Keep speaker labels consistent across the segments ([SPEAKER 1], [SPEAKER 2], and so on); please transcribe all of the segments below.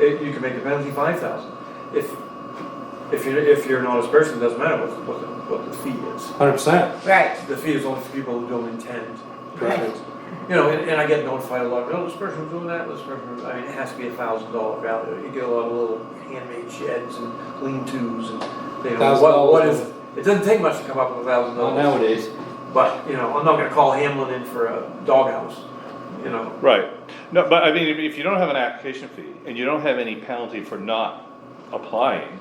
[SPEAKER 1] it, you can make the penalty five thousand. If, if you're, if you're an honest person, it doesn't matter what, what, the- what the fee is.
[SPEAKER 2] Hundred percent.
[SPEAKER 3] Right,
[SPEAKER 1] The fee is only for people who don't intend.
[SPEAKER 2] Correct.
[SPEAKER 1] You know, and, and I get notified a lot, oh, this person's doing that, this person, I mean, it has to be a thousand dollar value. You get a lot of little handmade sheds and lean-tos and, you know,
[SPEAKER 2] $1,000
[SPEAKER 1] what, what is,
[SPEAKER 2] worth.
[SPEAKER 1] it doesn't take much to come up with a thousand
[SPEAKER 2] Not
[SPEAKER 1] dollars.
[SPEAKER 2] nowadays.
[SPEAKER 1] But, you know, I'm not gonna call Hamlin in for a doghouse, you know.
[SPEAKER 4] Right, no, but I mean, if, if you don't have an application fee and you don't have any penalty for not applying,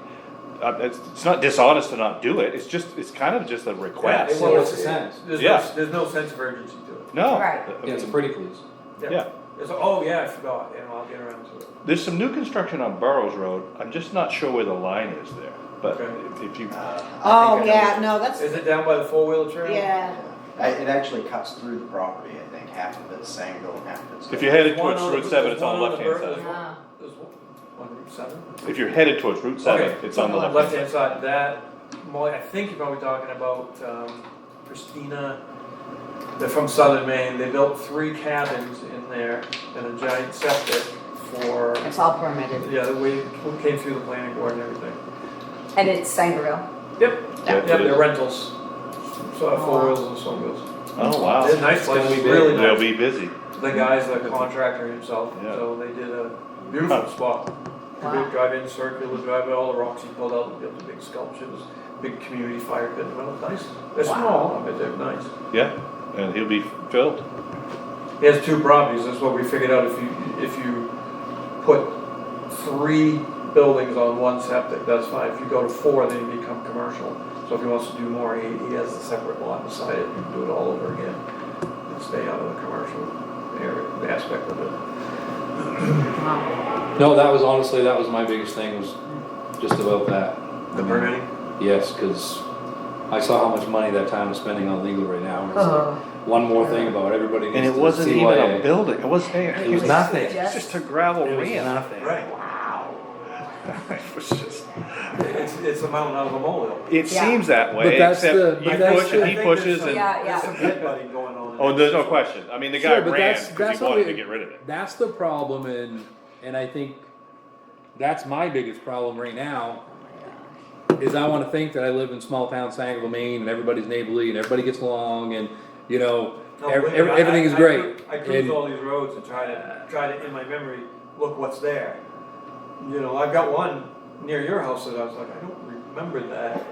[SPEAKER 4] uh, it's, it's not dishonest to not do it, it's just, it's kind of just a
[SPEAKER 1] Yeah,
[SPEAKER 4] request.
[SPEAKER 1] it was-
[SPEAKER 2] What's the sense?
[SPEAKER 1] There's
[SPEAKER 4] Yeah.
[SPEAKER 1] no, there's no sense of urgency to it.
[SPEAKER 4] No. Uh,
[SPEAKER 3] Right.
[SPEAKER 4] I
[SPEAKER 2] Yeah, it's a
[SPEAKER 4] mean,
[SPEAKER 2] pretty please.
[SPEAKER 4] Yeah.
[SPEAKER 1] It's, oh, yeah, I forgot, you know, I'll get around to it.
[SPEAKER 4] There's some new construction on Burrows Road, I'm just not sure where the line is there, but
[SPEAKER 1] Okay.
[SPEAKER 4] if you,
[SPEAKER 1] I
[SPEAKER 3] oh,
[SPEAKER 1] think I
[SPEAKER 3] yeah,
[SPEAKER 1] know.
[SPEAKER 3] no, that's,
[SPEAKER 1] Is it down by the four-wheeler trail?
[SPEAKER 3] yeah,
[SPEAKER 5] I- It actually cuts through the property, I think, half of it's Sangerville, and half of it's.
[SPEAKER 4] if you're headed
[SPEAKER 1] One
[SPEAKER 4] towards
[SPEAKER 1] on-
[SPEAKER 4] Route seven, it's
[SPEAKER 1] there's
[SPEAKER 4] on the
[SPEAKER 1] one on the
[SPEAKER 4] left-hand
[SPEAKER 1] ver-
[SPEAKER 4] side.
[SPEAKER 3] Ah.
[SPEAKER 1] There's one on Route seven?
[SPEAKER 4] If you're headed towards Route seven,
[SPEAKER 1] Okay.
[SPEAKER 4] it's on the left-hand
[SPEAKER 1] Left-hand side, that, Molly, I think you're probably talking about, um, Christina, they're from southern Maine, they built three cabins in there and a giant septic for,
[SPEAKER 3] it's all permitted,
[SPEAKER 1] yeah, the way it came through the planning board and everything.
[SPEAKER 3] and it's Sangerville.
[SPEAKER 1] Yep, yep,
[SPEAKER 4] side.
[SPEAKER 1] they're rentals, so
[SPEAKER 3] Oh,
[SPEAKER 1] four
[SPEAKER 3] wow.
[SPEAKER 1] wheels and so wheels.
[SPEAKER 4] Oh, wow.
[SPEAKER 1] They're nice
[SPEAKER 2] gonna
[SPEAKER 1] places,
[SPEAKER 2] be big.
[SPEAKER 1] really
[SPEAKER 4] They'll
[SPEAKER 1] nice.
[SPEAKER 4] be busy.
[SPEAKER 1] The guy's the contractor himself,
[SPEAKER 4] Yeah.
[SPEAKER 1] so they did a beautiful spot.
[SPEAKER 3] Wow.
[SPEAKER 1] Drive in circular, drive in all the rocks he pulled out, built the big sculptures, big community fire pit, well, it's nice. They're
[SPEAKER 3] Wow.
[SPEAKER 1] small, but they're nice.
[SPEAKER 4] Yeah, and he'll be filled.
[SPEAKER 1] He has two properties, that's what we figured out, if you, if you put three buildings on one septic, that's fine. If you go to four, then you become commercial. So if he wants to do more, he, he has a separate lot beside it, you can do it all over again, and stay out of the commercial area, aspect of it.
[SPEAKER 3] Wow.
[SPEAKER 2] No, that was honestly that was my biggest thing was just about that.
[SPEAKER 1] The permitting?
[SPEAKER 2] Yes, because I saw how much money that town is spending on legal right now. and it's like,
[SPEAKER 1] Uh-huh.
[SPEAKER 3] Oh.
[SPEAKER 2] One more thing about everybody.
[SPEAKER 4] And
[SPEAKER 2] needs
[SPEAKER 4] it
[SPEAKER 2] to
[SPEAKER 4] wasn't even a
[SPEAKER 2] CYA.
[SPEAKER 4] building, it wasn't, it
[SPEAKER 2] was
[SPEAKER 4] was
[SPEAKER 2] nothing.
[SPEAKER 4] It's just a gravel
[SPEAKER 2] It was
[SPEAKER 4] ramp.
[SPEAKER 2] nothing.
[SPEAKER 1] Right.
[SPEAKER 4] It was just-
[SPEAKER 1] It's, it's a mountain out of a molehill.
[SPEAKER 4] It
[SPEAKER 3] Yeah.
[SPEAKER 4] seems that
[SPEAKER 2] But
[SPEAKER 4] way,
[SPEAKER 2] that's
[SPEAKER 4] except
[SPEAKER 2] the-
[SPEAKER 4] you
[SPEAKER 2] but that's
[SPEAKER 4] push
[SPEAKER 2] the-
[SPEAKER 4] and
[SPEAKER 1] I
[SPEAKER 4] he
[SPEAKER 1] think there's
[SPEAKER 4] pushes
[SPEAKER 1] some-
[SPEAKER 4] and,
[SPEAKER 3] Yeah, yeah.
[SPEAKER 1] There's some pit butting going on. in
[SPEAKER 4] oh,
[SPEAKER 1] there.
[SPEAKER 4] there's no question. I mean, the guy
[SPEAKER 2] Sure, but
[SPEAKER 4] ran
[SPEAKER 2] that's-
[SPEAKER 4] because
[SPEAKER 2] that's
[SPEAKER 4] he
[SPEAKER 2] what
[SPEAKER 4] wanted
[SPEAKER 2] we-
[SPEAKER 4] to get rid of it.
[SPEAKER 2] That's the problem, and and I think that's my biggest problem right now. Is I want to think that I live in small town Sangerville, Maine, and everybody's neighborly and everybody gets along, and you know
[SPEAKER 1] No,
[SPEAKER 2] ev-
[SPEAKER 1] believe
[SPEAKER 2] ev-
[SPEAKER 1] me, I-
[SPEAKER 2] everything is
[SPEAKER 1] I- I
[SPEAKER 2] great.
[SPEAKER 1] cru- I cruise
[SPEAKER 2] And-
[SPEAKER 1] all these roads and try to, try to, in my memory, look what's there. You know, I've got one near your house that I was like, I don't remember that,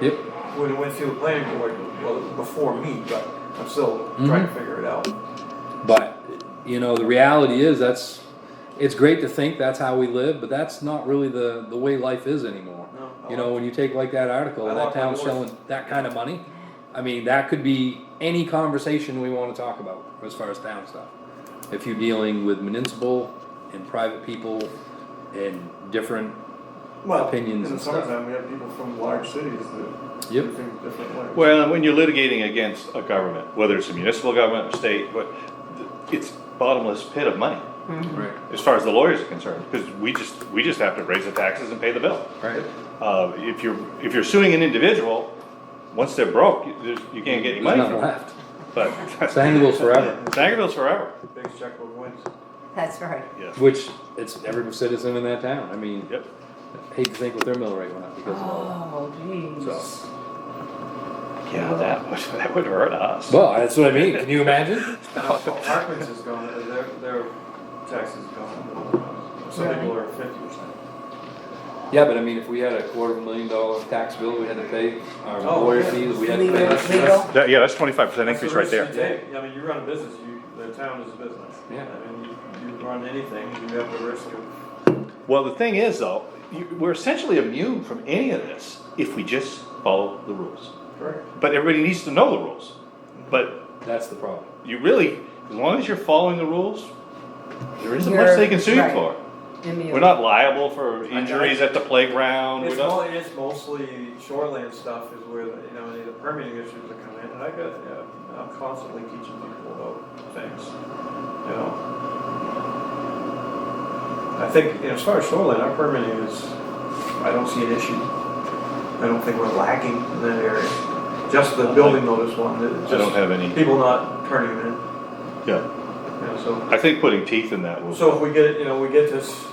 [SPEAKER 2] yep.
[SPEAKER 1] when it went through the planning board, well, before me, but I'm still
[SPEAKER 2] Mm-hmm.
[SPEAKER 1] trying to figure it out.
[SPEAKER 2] But you know, the reality is that's it's great to think that's how we live, but that's not really the the way life is anymore.
[SPEAKER 1] No, I
[SPEAKER 2] you know,
[SPEAKER 1] like-
[SPEAKER 2] when you take like that article,
[SPEAKER 1] I
[SPEAKER 2] that
[SPEAKER 1] like my
[SPEAKER 2] town's
[SPEAKER 1] doors.
[SPEAKER 2] selling that kind of money. I mean, that could be any conversation we want to talk about as far as town stuff. If you're dealing with municipal and private people and different,
[SPEAKER 1] Well,
[SPEAKER 2] Opinions
[SPEAKER 1] In the
[SPEAKER 2] and stuff.
[SPEAKER 1] summertime, we have people from large cities that
[SPEAKER 2] Yep.
[SPEAKER 1] do things different ways.
[SPEAKER 4] Well, and when you're litigating against a government, whether it's a municipal government or state, but it's bottomless pit of money
[SPEAKER 2] right,
[SPEAKER 4] as far as the lawyers are concerned, because we just we just have to raise the taxes and pay the bill.
[SPEAKER 2] right,
[SPEAKER 4] Uh, if you're if you're suing an individual, once they're broke, you, there's- you can't get any
[SPEAKER 2] there's nothing
[SPEAKER 4] money from them.
[SPEAKER 2] left.
[SPEAKER 4] But
[SPEAKER 2] Sangerville's forever.
[SPEAKER 4] Sangerville's forever.
[SPEAKER 1] Biggest checkbook wins.
[SPEAKER 3] That's right.
[SPEAKER 4] Yes.
[SPEAKER 2] Which it's every citizen in that town. I mean,
[SPEAKER 4] Yep.
[SPEAKER 2] hate to think what their mill rate went up because of all that.
[SPEAKER 3] Oh, jeez.
[SPEAKER 4] Yeah, that would that would hurt us.
[SPEAKER 2] Well, that's what I mean. Can you imagine?
[SPEAKER 1] Now, Parkman's is gone, uh, their, their taxes is gone. Some
[SPEAKER 3] Really?
[SPEAKER 1] people are fifty percent.
[SPEAKER 2] Yeah, but I mean, if we had a quarter of a million dollar tax bill, we had to pay our
[SPEAKER 1] Oh,
[SPEAKER 2] lawyer
[SPEAKER 1] yeah.
[SPEAKER 2] fees, we had to
[SPEAKER 3] Legal-
[SPEAKER 2] pay.
[SPEAKER 3] legal.
[SPEAKER 4] That- yeah, that's twenty five percent increase right there.
[SPEAKER 1] I mean, you run a business, you, the town is a business.
[SPEAKER 2] Yeah.
[SPEAKER 1] I mean, you, you run anything, you have the risk of,
[SPEAKER 4] Well, the thing is, though, you, we're essentially immune from any of this if we just follow the rules.
[SPEAKER 1] correct?
[SPEAKER 4] But everybody needs to know the rules. But
[SPEAKER 2] That's the problem.
[SPEAKER 4] you really, as long as you're following the rules, there isn't
[SPEAKER 3] You're-
[SPEAKER 4] much they can sue you
[SPEAKER 3] right.
[SPEAKER 4] for.
[SPEAKER 3] Immune.
[SPEAKER 4] We're not liable for
[SPEAKER 1] I- I-
[SPEAKER 4] injuries at the playground. We're
[SPEAKER 1] It's
[SPEAKER 4] not,
[SPEAKER 1] mo- it's mostly shoreland stuff is where, the- you know, the permitting issues that come in, and I got, yeah, I'm constantly teaching people about things, you know? I think, you know, as far as shoreline, our permitting is, I don't see an issue. I don't think we're lacking in that area. Just the building notice one, that
[SPEAKER 4] I
[SPEAKER 1] just.
[SPEAKER 4] don't have any.
[SPEAKER 1] people not turning in,
[SPEAKER 4] Yeah.
[SPEAKER 1] you know, so,
[SPEAKER 4] I think putting teeth in that will.
[SPEAKER 1] so if we get, you know, we get this